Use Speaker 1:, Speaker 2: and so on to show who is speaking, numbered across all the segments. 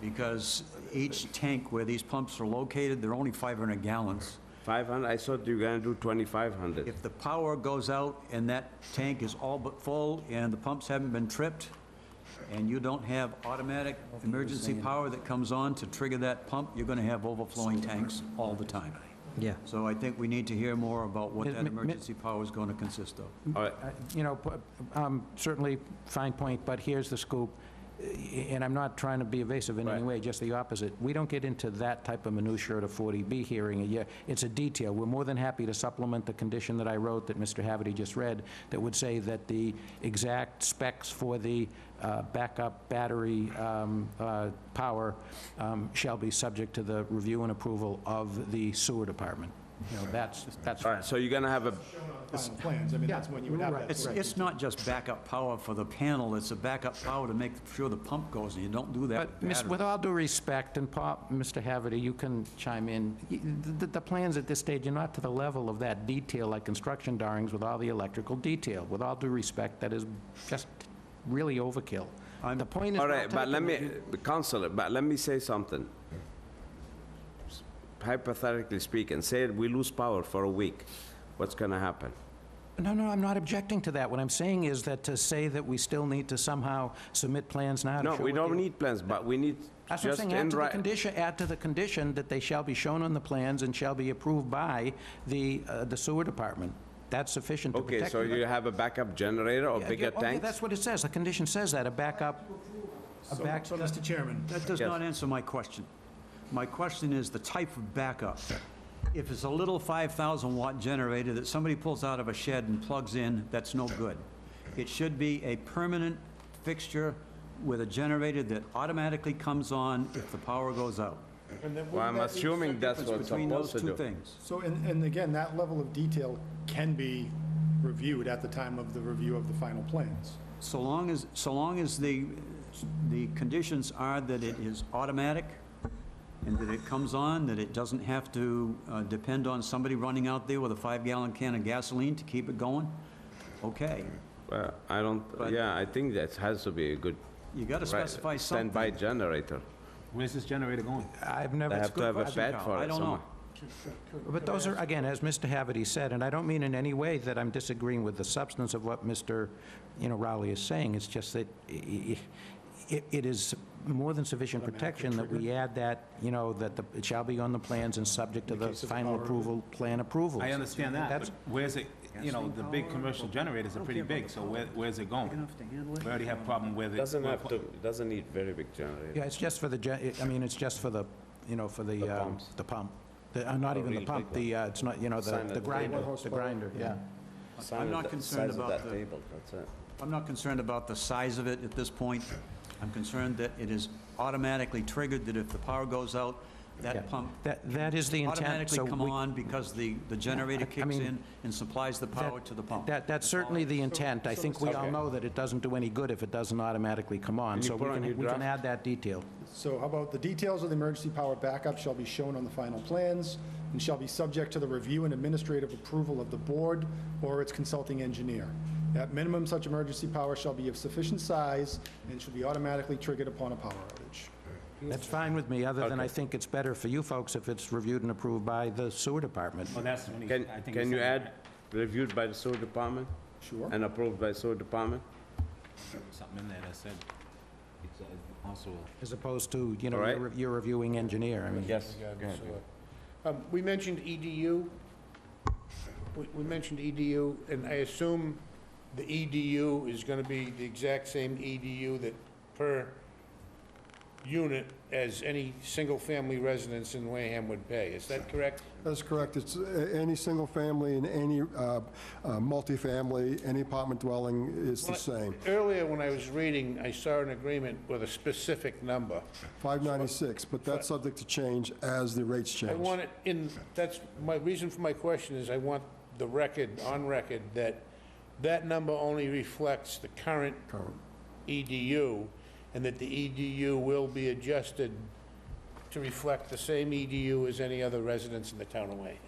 Speaker 1: because each tank where these pumps are located, they're only 500 gallons.
Speaker 2: 500, I thought you were gonna do 2,500.
Speaker 1: If the power goes out and that tank is all but full and the pumps haven't been tripped, and you don't have automatic emergency power that comes on to trigger that pump, you're gonna have overflowing tanks all the time.
Speaker 3: Yeah.
Speaker 1: So I think we need to hear more about what
Speaker 3: Mi-
Speaker 1: that
Speaker 3: mi- mi-
Speaker 1: emergency power is gonna consist of.
Speaker 2: All right,
Speaker 3: Uh, You know, pu- um, certainly, fine point, but here's the scoop, eh, and I'm not trying to be evasive in any
Speaker 2: Right.
Speaker 3: way, just the opposite. We don't get into that type of minutia at a 40B hearing. Yeah, It's a detail. We're more than happy to supplement the condition that I wrote, that Mr. Haverty just read, that would say that the exact specs for the uh, backup battery um, uh, power um, shall be subject to the review and approval of the sewer department. You know, that's, that's...
Speaker 2: all right, so you're gonna have a,
Speaker 4: shown on the final plans, I mean, that's when you would have that.
Speaker 1: It's, it's not just backup power for the panel, it's a backup power to make sure the pump goes, and you don't do that
Speaker 3: But,
Speaker 1: with
Speaker 3: miss-
Speaker 1: batteries.
Speaker 3: with all due respect, and Paul, Mr. Haverty, you can chime in, y- the, the plans at this stage are not to the level of that detail, like construction drawings with all the electrical detail. With all due respect, that is just really overkill. The point is
Speaker 2: all
Speaker 3: not
Speaker 2: right, but let
Speaker 3: taken.
Speaker 2: me, Counselor, but let me say something. Hypothetically speaking, say we lose power for a week, what's gonna happen?
Speaker 3: No, no, I'm not objecting to that. What I'm saying is that to say that we still need to somehow submit plans now to
Speaker 2: No,
Speaker 3: show
Speaker 2: we
Speaker 3: what the-
Speaker 2: don't need plans, but we need
Speaker 3: That's what I'm
Speaker 2: just
Speaker 3: saying, add
Speaker 2: in
Speaker 3: to the
Speaker 2: right.
Speaker 3: condition, add to the condition that they shall be shown on the plans and shall be approved by the, uh, the sewer department. That's sufficient to protect.
Speaker 2: Okay, so
Speaker 3: the-
Speaker 2: you have a backup generator or
Speaker 3: Yeah,
Speaker 2: bigger
Speaker 3: yeah, oh, yeah,
Speaker 2: tanks?
Speaker 3: that's what it says, the condition says that, a backup, a
Speaker 4: So-
Speaker 3: back,
Speaker 4: So, Mr. Chairman,
Speaker 1: That does
Speaker 2: Yes.
Speaker 1: not answer my question. My question is the type of backup. If it's a little 5,000 watt generator that somebody pulls out of a shed and plugs in, that's no good. It should be a permanent fixture with a generator that automatically comes on if the power goes out.
Speaker 4: and then
Speaker 2: Well,
Speaker 4: wouldn't
Speaker 2: I'm
Speaker 4: that be-
Speaker 2: assuming that's
Speaker 1: It's
Speaker 2: what's
Speaker 1: between
Speaker 2: supposed
Speaker 1: those
Speaker 2: to
Speaker 1: two
Speaker 2: do.
Speaker 1: things.
Speaker 4: So, and, and again, that level of detail can be reviewed at the time of the review of the final plans.
Speaker 1: So long as, so long as the, the conditions are that it is automatic and that it comes on, that it doesn't have to uh, depend on somebody running out there with a five-gallon can of gasoline to keep it going, okay.
Speaker 2: Well, I don't,
Speaker 1: But-
Speaker 2: yeah, I think that has to be a good.
Speaker 1: You gotta
Speaker 2: right,
Speaker 1: specify
Speaker 2: Standby
Speaker 1: something.
Speaker 2: generator.
Speaker 5: Where's this generator going?
Speaker 3: I've
Speaker 2: They
Speaker 3: never,
Speaker 2: have to have a
Speaker 1: question,
Speaker 2: bed
Speaker 1: Carl.
Speaker 2: for
Speaker 1: I
Speaker 2: it
Speaker 1: don't know.
Speaker 2: somewhere.
Speaker 3: but those are, again, as Mr. Haverty said, and I don't mean in any way that I'm disagreeing with the substance of what Mr., you know, Rowley is saying, it's just that i- i- it, it is more than sufficient protection that we add that, you know, that the, it shall be on the plans and subject to the final approval, plan approval.
Speaker 5: I understand that, but
Speaker 3: That's-
Speaker 5: where's it, you know, the big commercial generators are pretty big, so where, where's it going? We already have problem with it.
Speaker 2: Doesn't have to, doesn't need very big generator.
Speaker 3: Yeah, it's just for the, gen- I mean, it's just for the, you know, for the,
Speaker 2: The
Speaker 3: um,
Speaker 2: pumps. Oh,
Speaker 3: the pump. The- uh, Not even the
Speaker 2: really big
Speaker 3: pump, the, uh, it's not, you know, the
Speaker 2: Sign of
Speaker 3: the
Speaker 2: the
Speaker 3: grinder,
Speaker 2: table.
Speaker 3: the grinder, yeah.
Speaker 2: Size
Speaker 1: I'm
Speaker 2: of
Speaker 1: not
Speaker 2: that-
Speaker 1: concerned
Speaker 2: size of
Speaker 1: about
Speaker 2: that
Speaker 1: the-
Speaker 2: table, that's it.
Speaker 1: I'm not concerned about the size of it at this point. I'm concerned that it is automatically triggered, that if the power goes out,
Speaker 3: Yeah.
Speaker 1: that pump
Speaker 3: That, that is the intent,
Speaker 1: automatically
Speaker 3: so
Speaker 1: come
Speaker 3: we-
Speaker 1: on because the, the generator kicks
Speaker 3: mean,
Speaker 1: in and supplies the power to the pump.
Speaker 3: that, that's certainly the intent. I think we all know that it doesn't do any good if it doesn't automatically come on,
Speaker 2: Can you
Speaker 3: so we
Speaker 2: put on your
Speaker 3: can, we can
Speaker 2: draft?
Speaker 3: add that detail.
Speaker 4: So how about the details of the emergency power backup shall be shown on the final plans and shall be subject to the review and administrative approval of the board or its consulting engineer. At minimum, such emergency power shall be of sufficient size and should be automatically triggered upon a power outage.
Speaker 3: That's fine with me, other than I think it's better for you folks if it's reviewed and approved by the sewer department.
Speaker 5: Well, Oh, that's when he,
Speaker 2: Can,
Speaker 5: I think. he
Speaker 2: can you
Speaker 5: said
Speaker 2: add reviewed by the sewer department
Speaker 4: Sure.
Speaker 2: and approved by sewer department?
Speaker 5: Something in there that said, it's uh, also.
Speaker 3: As opposed to, you know,
Speaker 2: All right.
Speaker 3: your- your reviewing engineer, I mean.
Speaker 2: Yes.
Speaker 6: Um, We mentioned EDU. We- We mentioned EDU, and I assume the EDU is going to be the exact same EDU that per unit as any single-family residence in Wareham would pay. Is that correct?
Speaker 7: That's correct. It's a- any single family and any uh, uh, multifamily, any apartment dwelling is the same.
Speaker 6: Earlier, when I was reading, I saw an agreement with a specific number.
Speaker 7: 596, but that's subject to change as the rates change.
Speaker 6: I want it in, that's, my reason for my question is I want the record, on record, that that number only reflects the current EDU, and that the EDU will be adjusted to reflect the same EDU as any other residence in the town of Wayne.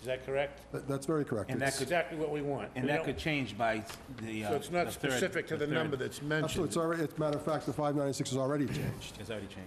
Speaker 6: Is that correct?
Speaker 7: That- That's very correct.
Speaker 5: And that
Speaker 6: That's
Speaker 5: could,
Speaker 6: exactly what we want.
Speaker 5: and
Speaker 6: We
Speaker 5: that
Speaker 6: don't-
Speaker 5: could change by the, uh.
Speaker 6: So it's
Speaker 5: the
Speaker 6: not
Speaker 5: third-
Speaker 6: specific to the
Speaker 5: third-
Speaker 6: number that's mentioned.
Speaker 7: Absolutely. It's already, as a matter of fact, the 596 is already changed.
Speaker 5: It's already changed.